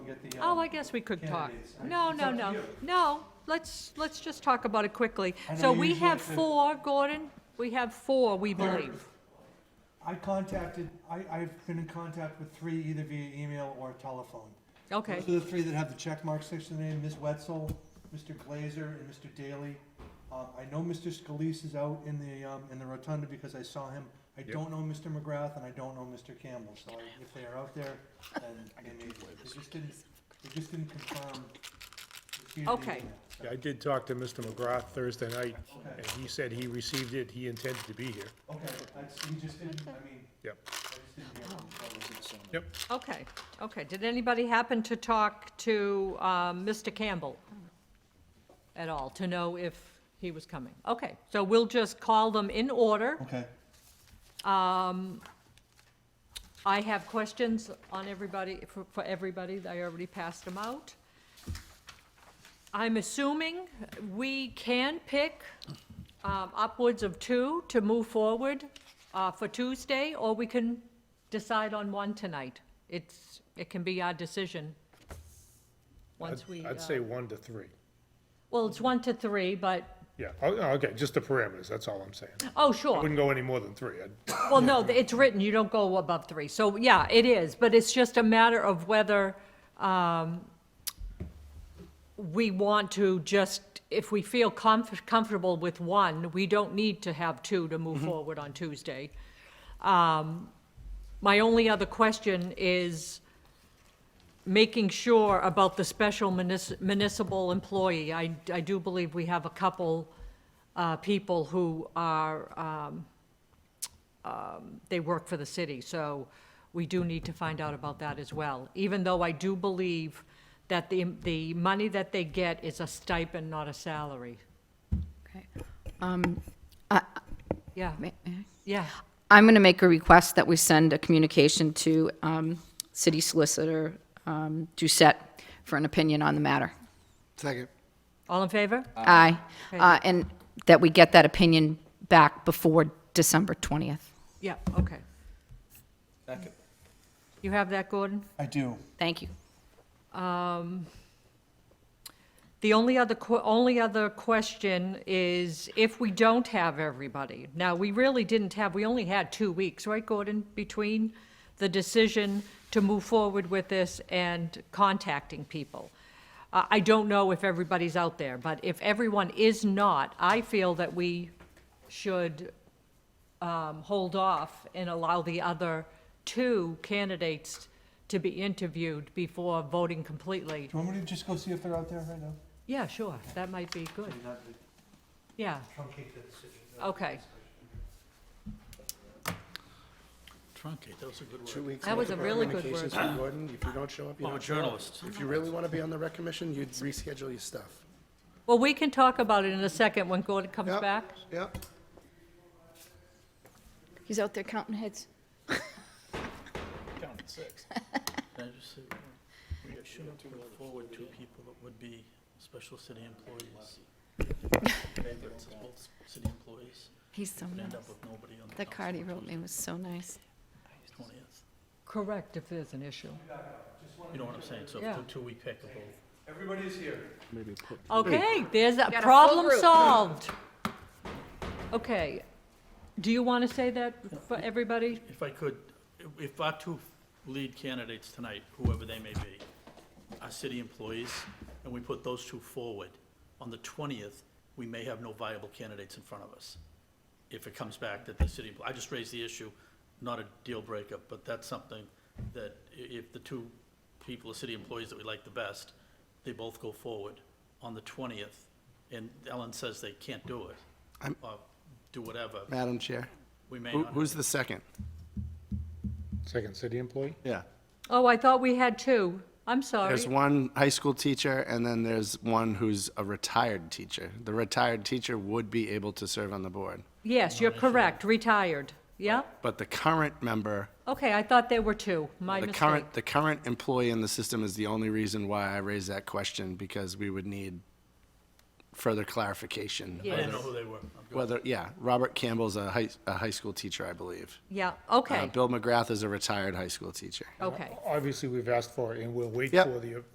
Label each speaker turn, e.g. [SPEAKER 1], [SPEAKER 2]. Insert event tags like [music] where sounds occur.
[SPEAKER 1] Oh, I guess we could talk.
[SPEAKER 2] candidates.
[SPEAKER 1] No,
[SPEAKER 2] It's
[SPEAKER 1] no,
[SPEAKER 2] up to
[SPEAKER 1] no,
[SPEAKER 2] you.
[SPEAKER 1] no, let's, let's just talk about it quickly.
[SPEAKER 2] I know
[SPEAKER 1] So
[SPEAKER 2] you
[SPEAKER 1] we
[SPEAKER 2] usually
[SPEAKER 1] have
[SPEAKER 2] say-
[SPEAKER 1] four, Gordon, we have four, we
[SPEAKER 2] There-
[SPEAKER 1] believe.
[SPEAKER 2] I contacted, I, I've been in contact with three either via email or telephone.
[SPEAKER 1] Okay,
[SPEAKER 2] Those are the three that have the check marks next to their name, Ms. Wetzel, Mr. Glazer, and Mr. Daly. Uh, I know Mr. Scalise is out in the, um, in the rotunda because I saw him. I don't know Mr. McGrath and I don't know Mr. Campbell, so if they are out there, then
[SPEAKER 1] [laughs]
[SPEAKER 2] they may, they just didn't, they just didn't confirm. the key to the
[SPEAKER 1] Okay.
[SPEAKER 2] email, so,
[SPEAKER 3] I did talk to Mr. McGrath Thursday night,
[SPEAKER 2] Okay.
[SPEAKER 3] and he said he received it, he intended to be here.
[SPEAKER 2] Okay, that's, he just didn't, I mean,
[SPEAKER 3] Yep.
[SPEAKER 2] I just didn't hear from him,
[SPEAKER 1] Oh.
[SPEAKER 2] so-
[SPEAKER 3] Yep.
[SPEAKER 1] okay, okay. Did anybody happen to talk to um, Mr. Campbell at all, to know if he was coming? Okay, so we'll just call them in order.
[SPEAKER 2] Okay.
[SPEAKER 1] I have questions on everybody, for for everybody, I already passed them out. I'm assuming we can pick um, upwards of two to move forward uh, for Tuesday, or we can decide on one tonight. It's, it can be our decision, once
[SPEAKER 3] I'd-
[SPEAKER 1] we. uh,
[SPEAKER 3] I'd say one to three.
[SPEAKER 1] Well, it's one to three, but,
[SPEAKER 3] Yeah, Oh, oh, okay, just the parameters, that's all I'm saying.
[SPEAKER 1] oh,
[SPEAKER 3] I
[SPEAKER 1] sure.
[SPEAKER 3] Wouldn't go any more than three. I'd-
[SPEAKER 1] Well, no, it's written, you don't go above three. So, yeah, it is, but it's just a matter of whether um, we want to just, if we feel comf- comfortable with one, we don't need to have two to move forward on Tuesday. Um, My only other question is making sure about the special munis- municipal employee. I, I do believe we have a couple uh, people who are, um, they work for the city, so we do need to find out about that as well. Even though I do believe that the, the money that they get is a stipend, not a salary.
[SPEAKER 4] Okay.
[SPEAKER 1] Yeah,
[SPEAKER 4] May- may I?
[SPEAKER 1] yeah,
[SPEAKER 4] I'm going to make a request that we send a communication to um, City Solicitor um, Doucette for an opinion on the matter.
[SPEAKER 5] Second.
[SPEAKER 1] all in favor?
[SPEAKER 4] Aye.
[SPEAKER 1] Okay.
[SPEAKER 4] Uh, And that we get that opinion back before December 20th.
[SPEAKER 1] Yeah, okay. You have that, Gordon?
[SPEAKER 2] I do.
[SPEAKER 4] Thank you.
[SPEAKER 1] The only other, que- only other question is if we don't have everybody. Now, we really didn't have, we only had two weeks, right, Gordon, between the decision to move forward with this and contacting people. Uh, I don't know if everybody's out there, but if everyone is not, I feel that we should um, hold off and allow the other two candidates to be interviewed before voting completely.
[SPEAKER 2] Do you want me to just go see if they're out there right now?
[SPEAKER 1] Yeah, sure, that might be good,
[SPEAKER 2] Not to
[SPEAKER 1] yeah,
[SPEAKER 2] truncate the decision.
[SPEAKER 1] okay.
[SPEAKER 6] Truncate, that was a good word.
[SPEAKER 5] Two weeks.
[SPEAKER 1] That was
[SPEAKER 5] worth
[SPEAKER 1] a
[SPEAKER 5] of
[SPEAKER 1] really good
[SPEAKER 5] communications
[SPEAKER 1] word.
[SPEAKER 5] from Gordon, if you don't show up, you
[SPEAKER 6] I'm a
[SPEAKER 5] don't show up.
[SPEAKER 6] oh, journalist.
[SPEAKER 5] If you really want to be on the rec commission, you'd reschedule your stuff.
[SPEAKER 1] Well, we can talk about it in a second when Gordon comes
[SPEAKER 5] Yep.
[SPEAKER 1] back.
[SPEAKER 5] Yep.
[SPEAKER 4] He's out there counting heads.
[SPEAKER 6] Count six. Can I just say, we shouldn't put forward two people that would be special city employees. Favorites as both city employees,
[SPEAKER 4] He's so
[SPEAKER 6] and
[SPEAKER 4] nice.
[SPEAKER 6] end up with nobody on the
[SPEAKER 4] That card he wrote me was so nice.
[SPEAKER 6] twentieth.
[SPEAKER 1] Correct, if there's an issue.
[SPEAKER 6] You know what I'm saying, so
[SPEAKER 1] Yeah.
[SPEAKER 6] two, two we pick of both.
[SPEAKER 2] Everybody's here.
[SPEAKER 1] Okay, there's a
[SPEAKER 4] full
[SPEAKER 1] problem
[SPEAKER 4] group.
[SPEAKER 1] solved. Okay, do you want to say that for everybody?
[SPEAKER 6] If I could, if- if our two lead candidates tonight, whoever they may be, are city employees, and we put those two forward, on the twentieth, we may have no viable candidates in front of us. If it comes back that the city, I just raised the issue, not a deal breaker, but that's something that i- if the two people are city employees that we like the best, they both go forward on the twentieth, and Ellen says they can't do it,
[SPEAKER 5] I'm-
[SPEAKER 6] or do whatever,
[SPEAKER 5] Madam Chair,
[SPEAKER 6] we may
[SPEAKER 5] who,
[SPEAKER 6] not.
[SPEAKER 5] who's the second?
[SPEAKER 3] Second city employee?
[SPEAKER 5] Yeah.
[SPEAKER 1] Oh, I thought we had two, I'm sorry.
[SPEAKER 5] There's one high school teacher, and then there's one who's a retired teacher. The retired teacher would be able to serve on the board,
[SPEAKER 1] Yes, you're correct, retired, yeah?
[SPEAKER 5] but the current member,
[SPEAKER 1] Okay, I thought there were two, my
[SPEAKER 5] the
[SPEAKER 1] mistake.
[SPEAKER 5] current, the current employee in the system is the only reason why I raised that question, because we would need further clarification.
[SPEAKER 6] I
[SPEAKER 1] Yes.
[SPEAKER 6] didn't know who they were. I'm good.
[SPEAKER 5] Whether, yeah, Robert Campbell's a high, a high school teacher, I believe.
[SPEAKER 1] Yeah,
[SPEAKER 5] Uh,
[SPEAKER 1] okay,
[SPEAKER 5] Bill McGrath is a retired high school teacher.
[SPEAKER 1] okay.
[SPEAKER 3] Obviously, we've asked for it, and we'll wait
[SPEAKER 5] Yep.
[SPEAKER 3] for the